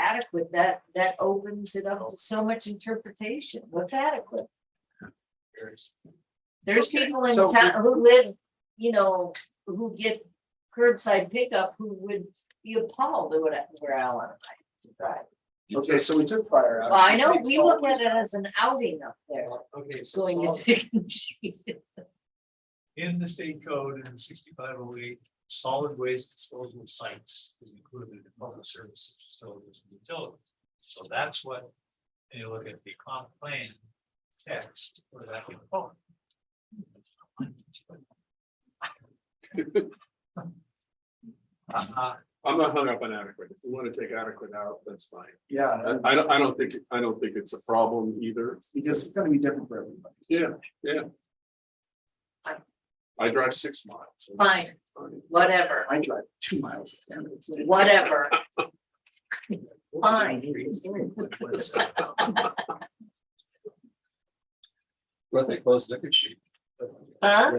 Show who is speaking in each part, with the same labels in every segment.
Speaker 1: adequate, that, that opens it up to so much interpretation. What's adequate? There's people in
Speaker 2: so-
Speaker 1: town who live, you know, who get curbside pickup who would be appalled at what I- where I want to drive.
Speaker 2: Okay, so we took fire out.
Speaker 1: Well, I know,
Speaker 2: took
Speaker 1: we
Speaker 2: solid
Speaker 1: look at it as an outing up there,
Speaker 2: waste out. Okay, so
Speaker 1: going to
Speaker 2: solid-
Speaker 1: pick and choose.
Speaker 2: in the state code in sixty-five oh eight, solid waste disposal sites is included in public services, facilities and utilities. So that's what, when you look at the comp plan text, where that can fall. Uh,
Speaker 3: I'm not hung up on adequate. If you want to take adequate out, that's fine.
Speaker 4: Yeah,
Speaker 3: I, I don't, I don't think, I don't think it's a problem either.
Speaker 4: because it's gonna be different for everybody.
Speaker 3: Yeah, yeah. I drive six miles. so that's
Speaker 1: Fine, whatever,
Speaker 4: I drive two miles. and it's like-
Speaker 1: whatever. Fine.
Speaker 2: Well, they closed liquor sheet.
Speaker 1: Huh?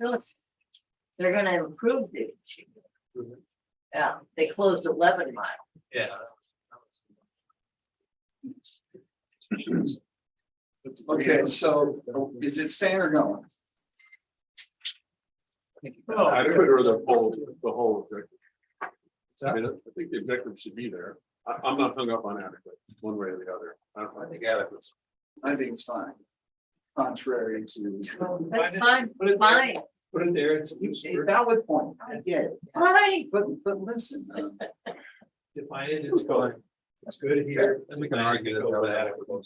Speaker 1: No, it's, they're gonna improve the.
Speaker 4: Mm-hmm.
Speaker 1: Yeah, they closed eleven mile.
Speaker 2: Yeah.
Speaker 4: Okay, so is it staying or going?
Speaker 3: Adequate or the whole, the whole objective. I
Speaker 2: I
Speaker 3: mean, I think the objective should be there. I, I'm not hung up on adequate, one way or the other. I don't know.
Speaker 2: think adequate.
Speaker 4: I think it's fine. Contrary to.
Speaker 1: That's fine,
Speaker 2: Put it there,
Speaker 1: fine,
Speaker 2: put it there, it's
Speaker 4: A valid point, I get it,
Speaker 1: fine.
Speaker 4: but, but listen, uh,
Speaker 2: define it, it's good. It's good here. And we can argue that.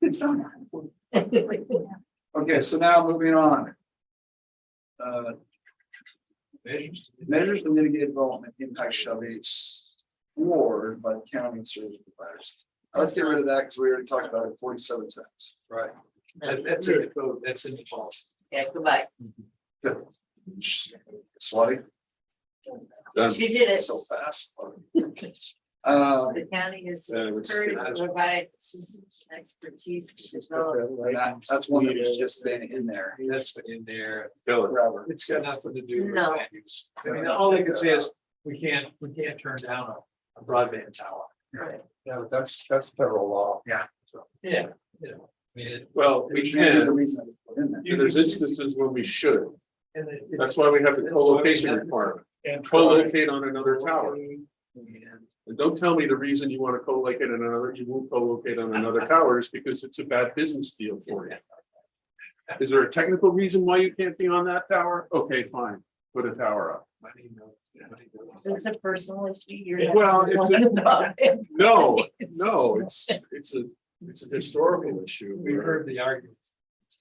Speaker 4: it's not. Okay, so now moving on. Uh,
Speaker 2: Measures.
Speaker 4: measures to mitigate development impact shall be explored by county service providers. Now Let's get rid of that because we already talked about it forty-seven times.
Speaker 2: Right. That- that's in the code, that's in the policy.
Speaker 1: Yeah, goodbye.
Speaker 4: Swati,
Speaker 3: Done.
Speaker 1: She did it.
Speaker 4: so fast. Uh,
Speaker 1: The county is
Speaker 3: Uh, which-
Speaker 1: encouraged to provide assistance and expertise to develop.
Speaker 4: that- that's one that was just been in there.
Speaker 2: That's been in there.
Speaker 3: Tell it.
Speaker 4: Forever.
Speaker 2: It's got nothing to do with
Speaker 1: No.
Speaker 2: land use. I mean, all they can say is, we can't, we can't turn down a- a broadband tower.
Speaker 1: Right.
Speaker 2: Yeah, that's, that's federal law. Yeah. Yeah, you know, I mean, it-
Speaker 3: Well, we
Speaker 4: We can't do the
Speaker 3: can,
Speaker 4: reason it was in there.
Speaker 3: and there's instances when we should.
Speaker 2: and it-
Speaker 3: That's
Speaker 2: it's.
Speaker 3: why we have the co-location requirement.
Speaker 2: and
Speaker 3: Co-locate on another tower.
Speaker 2: And
Speaker 3: And don't tell me the reason you want to co-locate in another, you won't co-locate on another tower is because it's a bad business deal for you. Is there a technical reason why you can't be on that tower? Okay, fine, put a tower up.
Speaker 2: money knows- money knows.
Speaker 1: It's a personal issue. You're
Speaker 3: Well,
Speaker 1: not the
Speaker 3: it's
Speaker 1: one about it.
Speaker 3: No, no, it's, it's a, it's a historical issue.
Speaker 2: We've heard the argument.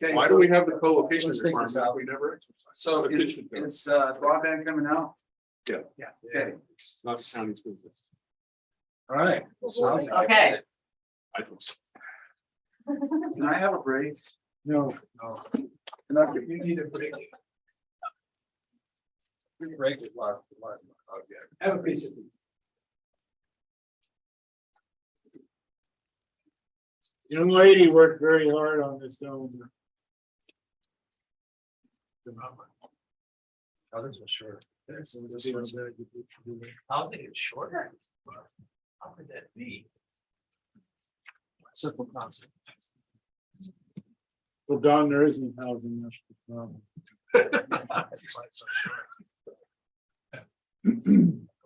Speaker 4: Okay,
Speaker 3: Why
Speaker 4: so-
Speaker 3: do we have the co-location
Speaker 4: Let's take
Speaker 3: requirement
Speaker 4: this
Speaker 3: if
Speaker 4: out.
Speaker 3: we never exercise?
Speaker 4: So
Speaker 3: But it
Speaker 4: is,
Speaker 3: should go. It's
Speaker 4: is uh, broadband coming out?
Speaker 2: Yeah.
Speaker 4: Okay,
Speaker 3: not the county's business.
Speaker 2: All right.
Speaker 1: Okay.
Speaker 3: I think so.
Speaker 4: can I have a break?
Speaker 2: No, no.
Speaker 4: Can I-
Speaker 2: You need a break. We can break it live, live, okay. Have a piece of.
Speaker 5: Young lady worked very hard on this own.
Speaker 2: Others are short.
Speaker 5: It's
Speaker 2: I'll think it's shorter. How could that be? Simple concept.
Speaker 5: Well, Don, there isn't housing. that's the problem.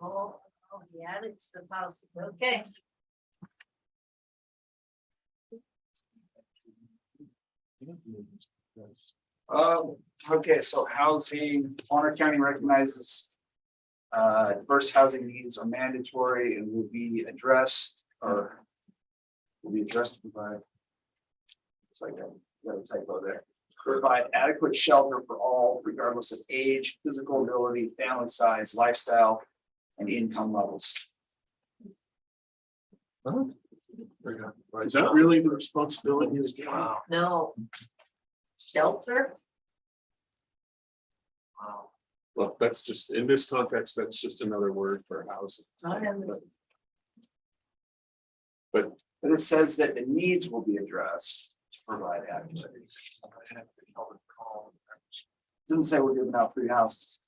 Speaker 1: Oh, oh, he added to the policy. Okay,
Speaker 4: Um, okay, so housing, Bonner County recognizes. Uh, diverse housing needs are mandatory and will be addressed or. Will be addressed by. It's like a little typo there. Provide adequate shelter for all regardless of age, physical ability, family size, lifestyle, and income levels.
Speaker 3: Is that really the responsibility is?
Speaker 2: Wow.
Speaker 1: no. Shelter?
Speaker 3: Well, that's just, in this context, that's just another word for housing.
Speaker 1: I am-
Speaker 4: But it says that the needs will be addressed to provide adequate. Doesn't say we're giving out free houses.